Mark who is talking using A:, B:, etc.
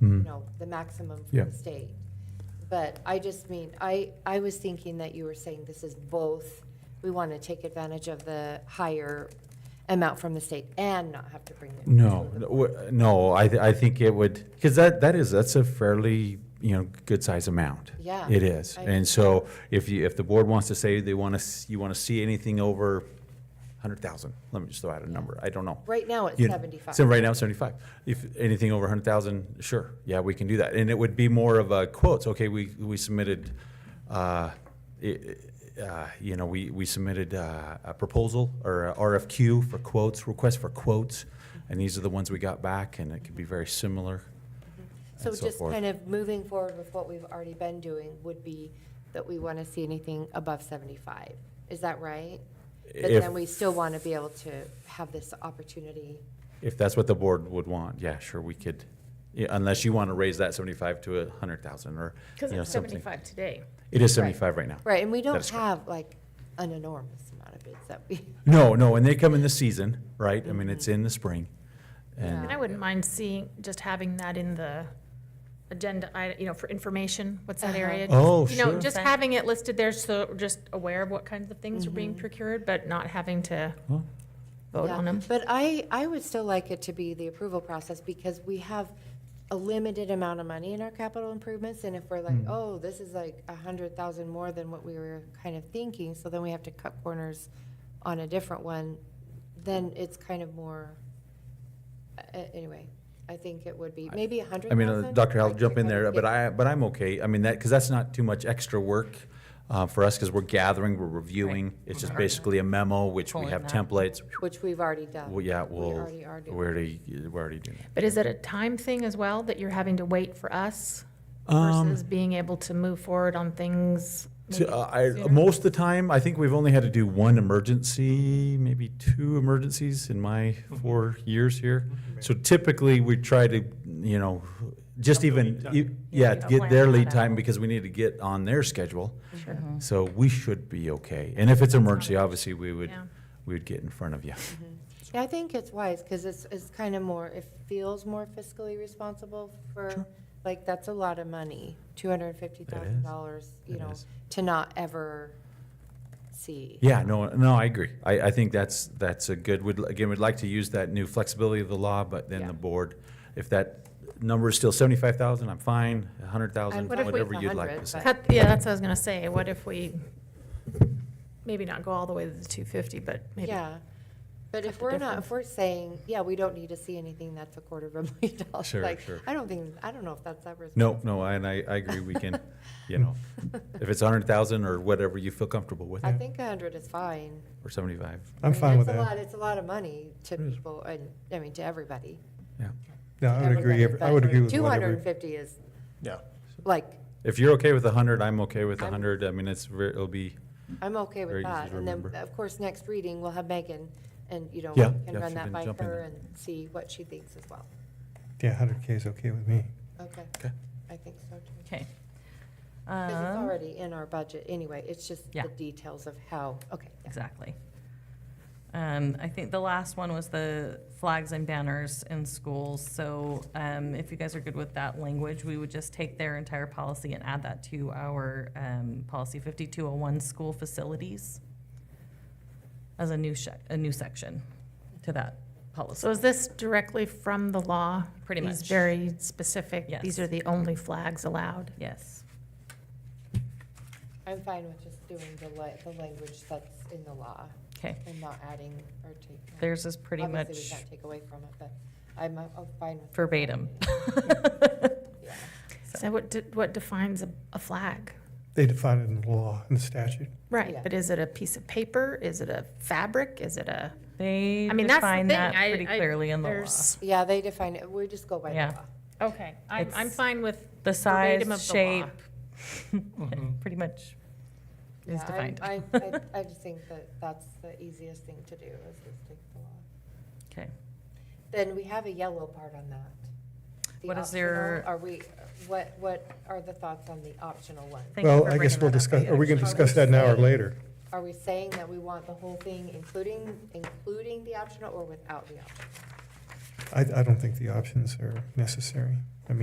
A: you
B: Mm.
A: know, the maximum
B: Yeah.
A: from the state. But I just mean, I, I was thinking that you were saying this is both, we want to take advantage of the higher amount from the state and not have to bring it.
B: No, no, w- no, I, th- I think it would, because that, that is, that's a fairly, you know, good size amount.
A: Yeah.
B: It is.
A: I-
B: And so if you, if the board wants to say they want to, you want to see anything over 100,000, let me just throw out a number, I don't know.
A: Right now, it's
B: You know,
A: 75.
B: So right now, seventy-five. If anything over hundred thousand, sure, yeah, we can do that. And it would be more of a quotes, okay, we, we submitted, uh, i- i- uh, you know, we, we submitted uh, a proposal or a RFQ for quotes, request for quotes, and these are the ones we got back, and it could be very similar.
A: So
B: and so
A: just
B: forth.
A: kind of moving forward with what we've already been doing would be that we want to see anything above 75. Is that right? But
B: If-
A: then we still want to be able to have this opportunity.
B: If that's what the board would want, yeah, sure, we could, yeah, unless you want to raise that seventy-five to a hundred thousand or, you
C: Because
B: know,
C: it's
B: something.
C: 75 today.
B: It is
A: Right.
B: seventy-five right now.
A: Right, and we
B: That
A: don't
B: is correct.
A: have like an enormous amount of bids that we,
B: No, no, and they come in the season, right? I mean, it's in the spring. And
C: And I wouldn't mind seeing, just having that in the agenda, I, you know, for information, what's that area?
B: Uh-huh. Oh,
C: You know,
B: sure.
C: just having it listed there, so we're just aware of what kinds of things are being procured, but not having to
B: Huh?
C: vote
A: Mm-hmm. Yeah,
C: on them.
A: But I, I would still like it to be the approval process because we have a limited amount of money in our capital improvements. And if we're like,
B: Mm.
A: oh, this is like a hundred thousand more than what we were kind of thinking, so then we have to cut corners on a different one, then it's kind of more, a- a- anyway, I think it would be, maybe a hundred
B: I mean,
A: thousand.
B: uh, Dr. I'll
A: like
B: jump in there,
A: 300,
B: but
A: yeah.
B: I, but I'm okay. I mean, that, because that's not too much extra work uh, for us, because we're gathering, we're reviewing. It's just basically a memo, which we
D: Pulling
B: have
D: that.
B: templates.
A: Which we've already done.
B: Well, yeah,
A: We
B: we'll,
A: already are doing
B: we're already, we're already doing that.
C: But is it a time thing as well, that you're having to wait for us
B: Um,
C: versus being able to move forward on things?
B: So,
C: maybe
B: uh, I,
C: sooner?
B: most of the time, I think we've only had to do one emergency, maybe two emergencies in my four years here. So typically, we try to, you know, just even, e- yeah,
C: Yeah,
B: get their
C: plan
B: lead
C: that
B: time Mm.
C: out.
B: because we need to get on their schedule. So we should be okay. And if it's emergency, obviously, we would,
C: Yeah.
B: we would get in front of you.
A: Yeah, I think it's wise, because it's, it's kind of more, it feels more fiscally responsible for, like, that's a lot of money, two hundred and fifty thousand dollars, you
B: It
A: know,
B: is.
A: to not ever see.
B: Yeah, no, no, I agree. I, I think that's, that's a good, would, again, we'd like to use that new flexibility of the law, but then
C: Yeah.
B: the board, if that number is still seventy-five thousand, I'm fine, a hundred
A: I'm
B: thousand,
A: fine with
B: whatever you'd like
A: 100,
B: to say.
C: Cut, yeah, that's what I was gonna say, what if we maybe not go all the way to the 250, but maybe
A: Yeah, but
C: Cut
A: if
C: the
A: we're not,
C: difference.
A: if we're saying, yeah, we don't need to see anything that's a quarter of a million dollars.
B: Sure,
A: like,
B: sure.
A: I don't think, I don't know if that's that responsible.
B: No, no, and I, I agree, we can, you know, if it's a hundred thousand or whatever you feel comfortable with,
A: I think a hundred is fine.
B: or seventy-five,
A: I
E: I'm
A: mean,
E: fine with
A: It's a lot,
E: that.
A: it's a lot of money to
B: It is.
A: people, and, I mean, to everybody.
B: yeah.
E: Yeah, I would agree, every- I would agree with
A: Two hundred and
E: whatever.
A: fifty is,
E: Yeah.
A: like,
B: If you're okay with a hundred, I'm okay with a
A: I'm-
B: hundred, I mean, it's, ver- it'll be,
A: I'm okay
B: Very
A: with
B: easy
A: that.
B: to
A: And then,
B: remember.
A: of course, next reading, we'll have Megan, and, you know, we
B: Yeah,
A: can
B: yeah,
A: run
B: she
A: that
B: can
A: by
B: jump in
A: her
B: there.
A: and see what she thinks as well.
E: Yeah, hundred K is okay with me.
A: Okay,
B: okay,
A: I think so too.
D: Okay.
A: Because it's
C: Uh-huh.
D: Um,
A: already in our budget anyway, it's just
D: Yeah.
A: the details of how, okay. yeah.
D: Exactly. Um, I think the last one was the flags and banners in schools. So, um, if you guys are good with that language, we would just take their entire policy and add that to our, um, policy fifty-two oh one, school facilities as a new sec, a new section to that policy.
C: So is this directly from the law?
D: Pretty
C: These
D: much.
C: very specific,
D: Yes.
C: these are the only flags allowed?
D: Yes.
A: I'm fine with just doing the li, the language that's in the law
D: Okay.
A: and not adding or taking.
D: Theirs is pretty
A: Obviously, we
D: much
A: can't take away from it, but I'm, uh, I'm fine with.
D: verbatim.
A: Yeah.
C: So what, de- what defines a, a flag?
E: They define it in the law, in the statute.
C: Right,
A: Yeah.
C: but is it a piece of paper? Is it a fabric? Is it a?
D: They
C: I mean, that's the
D: define that
C: thing. I-
D: pretty
C: I-
D: clearly in the law.
C: there's-
A: Yeah, they define it, we just go by the
D: Yeah.
A: law.
C: Okay, I'm, I'm
D: It's
C: fine with,
D: The
C: Verbatim
D: size,
C: of the law.
D: shape, pretty much is
A: Yeah, I-
D: defined.
A: I, I, I just think that that's the easiest thing to do is just take the law.
D: Okay.
A: Then we have a yellow part on that. The
D: What is
A: optional,
D: there-
A: Are we, what, what are the thoughts on the optional one?
D: Thank you
E: Well,
D: for
E: I
D: bringing
E: guess we'll
D: that up.
E: discuss, are we gonna
A: Are we
E: discuss that now or
A: saying-
E: later?
A: Are we saying that we want the whole thing, including, including the optional or without the optional?
E: I, I don't think the options are necessary. I mean,